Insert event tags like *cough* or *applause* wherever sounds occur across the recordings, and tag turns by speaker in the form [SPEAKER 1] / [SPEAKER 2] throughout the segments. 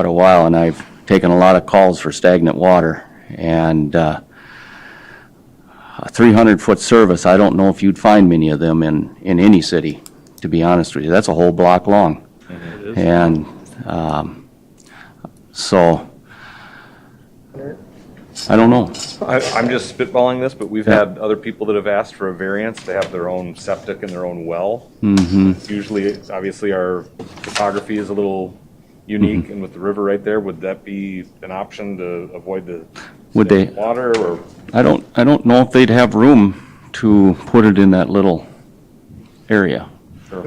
[SPEAKER 1] quite a while, and I've taken a lot of calls for stagnant water. And uh, a 300-foot service, I don't know if you'd find many of them in, in any city, to be honest with you. That's a whole block long. And um, so, I don't know.
[SPEAKER 2] I, I'm just spitballing this, but we've
[SPEAKER 1] Yeah.
[SPEAKER 2] had other people that have asked for a variance. They have their own septic and their own well.
[SPEAKER 1] Mm-hmm.
[SPEAKER 2] Usually, it's- obviously, our topography is a little
[SPEAKER 1] Mm-hmm.
[SPEAKER 2] unique, and with the river right there, would that be an option to avoid the
[SPEAKER 1] Would they-
[SPEAKER 2] water or?
[SPEAKER 1] I don't, I don't know if they'd have room to put it in that little area.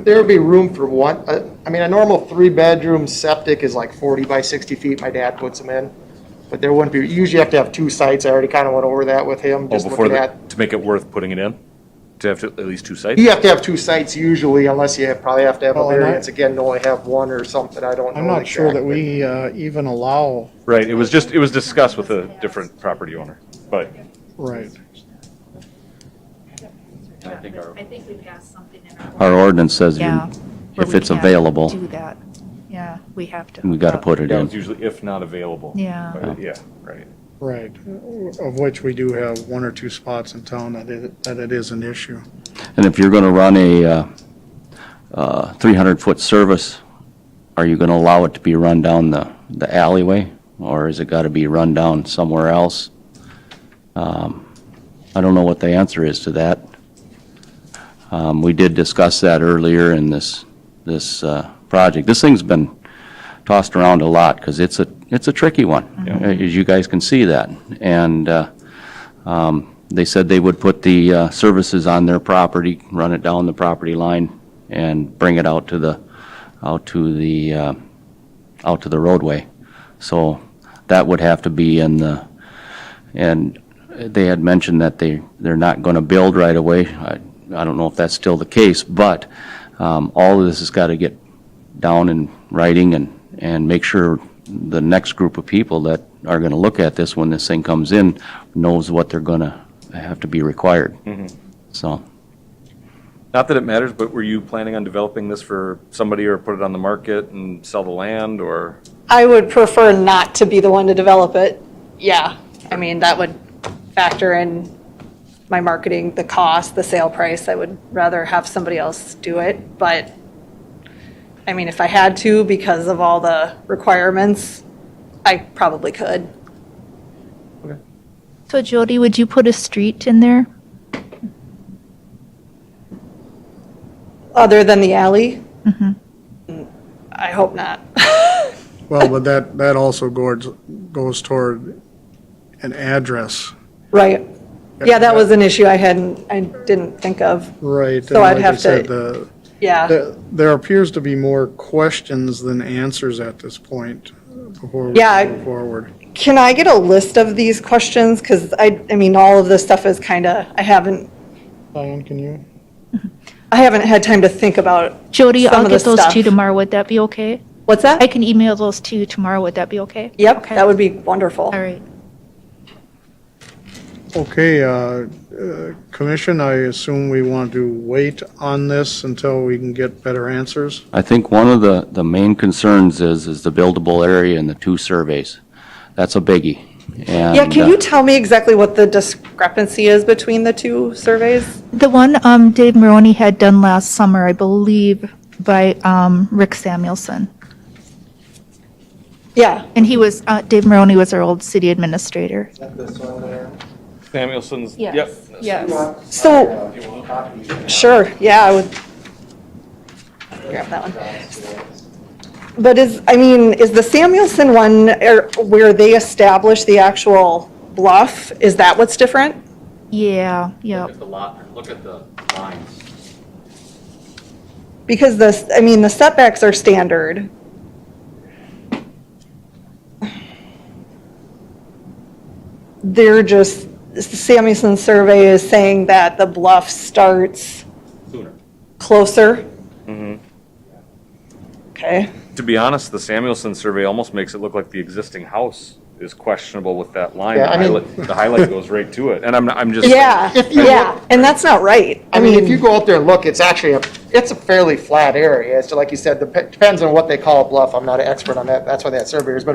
[SPEAKER 3] There would be room for one, uh, I mean, a normal three-bedroom septic is like 40 by 60 feet, my dad puts them in. But there wouldn't be, you usually have to have two sites, I already kind of went over that with him,
[SPEAKER 2] Oh,
[SPEAKER 3] just
[SPEAKER 2] before
[SPEAKER 3] looking
[SPEAKER 2] the
[SPEAKER 3] at.
[SPEAKER 2] To make it worth putting it in? To have to- at least two sites?
[SPEAKER 3] You have to have two sites usually, unless you have- probably have to have a
[SPEAKER 4] Well, and I-
[SPEAKER 3] variance again, to only have one or something, I don't know.
[SPEAKER 4] I'm not sure that
[SPEAKER 3] exactly.
[SPEAKER 4] we uh, even allow,
[SPEAKER 2] Right, it was just, it was discussed with a different property owner, but
[SPEAKER 4] right.
[SPEAKER 2] I think our-
[SPEAKER 5] I think we've got something in our.
[SPEAKER 1] Our ordinance says you-
[SPEAKER 5] Yeah. but
[SPEAKER 1] if
[SPEAKER 5] we
[SPEAKER 1] it's
[SPEAKER 5] can't
[SPEAKER 1] available,
[SPEAKER 5] Do that. Yeah, we have to.
[SPEAKER 1] we got to put it
[SPEAKER 2] yeah, it's
[SPEAKER 1] in.
[SPEAKER 2] usually if not available.
[SPEAKER 5] Yeah.
[SPEAKER 2] But, Yeah, right.
[SPEAKER 4] Right, of which we do have one or two spots in town that it, that it is an issue.
[SPEAKER 1] And if you're going to run a uh, uh, 300-foot service, are you going to allow it to be run down the the alleyway? Or has it got to be run down somewhere else? Um, I don't know what the answer is to that. Um, We did discuss that earlier in this, this uh, project. This thing's been tossed around a lot because it's a, it's a tricky one, as you guys can see that. And uh, um, they said they would put the uh, services on their property, run it down the property line, and bring it out to the, out to the, uh, out to the roadway. So that would have to be in the, and they had mentioned that they, they're not going to build right away. I I don't know if that's still the case, but um, all of this has got to get down in writing and, and make sure the next group of people that are going to look at this when this thing comes in knows what they're going to have to be required. So,
[SPEAKER 2] Not that it matters, but were you planning on developing this for somebody or put it on the market and sell the land or?
[SPEAKER 6] I would prefer not to be the one to develop it. Yeah, I mean, that would factor in my marketing, the cost, the sale price. I would rather have somebody else do it, but, I mean, if I had to because of all the requirements, I probably could.
[SPEAKER 5] So Jody, would you put a street in there?
[SPEAKER 6] Other than the alley? I hope not.
[SPEAKER 4] Well, but that, that also goes, goes toward an address.
[SPEAKER 6] Right. *laughs* Yeah, that was an issue I hadn't, I didn't think of.
[SPEAKER 4] Right.
[SPEAKER 6] So
[SPEAKER 4] and
[SPEAKER 6] I'd
[SPEAKER 4] like I
[SPEAKER 6] have to-
[SPEAKER 4] said, the-
[SPEAKER 6] Yeah.
[SPEAKER 4] the- There appears to be more questions than answers at this point before we
[SPEAKER 6] Yeah, I-
[SPEAKER 4] go forward.
[SPEAKER 6] Can I get a list of these questions? Because I, I mean, all of this stuff is kind of, I haven't
[SPEAKER 4] Diane, can you?
[SPEAKER 6] I haven't had time to think about,
[SPEAKER 5] Jody,
[SPEAKER 6] Some
[SPEAKER 5] I'll
[SPEAKER 6] of the
[SPEAKER 5] get those to you
[SPEAKER 6] stuff.
[SPEAKER 5] tomorrow. Would that be okay?
[SPEAKER 6] what's
[SPEAKER 5] I
[SPEAKER 6] that?
[SPEAKER 5] can email those to you tomorrow. Would that be okay?
[SPEAKER 6] Yep,
[SPEAKER 5] Okay.
[SPEAKER 6] that would be wonderful.
[SPEAKER 5] All right.
[SPEAKER 4] Okay, uh, uh, Commission, I assume we want to wait on this until we can get better answers?
[SPEAKER 1] I think one of the, the main concerns is, is the buildable area and the two surveys. That's a biggie. uh,
[SPEAKER 6] Yeah, can you tell me exactly what the discrepancy is between the two surveys?
[SPEAKER 5] The one um, Dave Maroney had done last summer, I believe, by um, Rick Samuelson.
[SPEAKER 6] Yeah,
[SPEAKER 5] And he was, uh, Dave Maroney was our old city administrator.
[SPEAKER 2] Samuelson's,
[SPEAKER 5] Yes.
[SPEAKER 2] yep.
[SPEAKER 5] Yes.
[SPEAKER 6] so, sure, yeah, I would grab that one. But is, I mean, is the Samuelson one er, where they establish the actual bluff, is that what's different?
[SPEAKER 5] Yeah, yeah.
[SPEAKER 7] Look at the lot, look at the lines.
[SPEAKER 6] Because the, I mean, the setbacks are standard. They're just, Samuelson survey is saying that the bluff starts closer. Okay,
[SPEAKER 2] To be honest, the Samuelson survey almost makes it look like the existing house is questionable with that line.
[SPEAKER 3] Yeah,
[SPEAKER 2] The
[SPEAKER 3] I mean-
[SPEAKER 2] highlight, the
[SPEAKER 3] *laughs*
[SPEAKER 2] highlight goes right to it, and I'm, I'm just.
[SPEAKER 6] Yeah, yeah, and that's not right.
[SPEAKER 3] I mean, if you go out there and look, it's actually a, it's a fairly flat area. It's like you said, dep- depends on what they call a bluff. I'm not an expert on that. That's why they had surveyors, but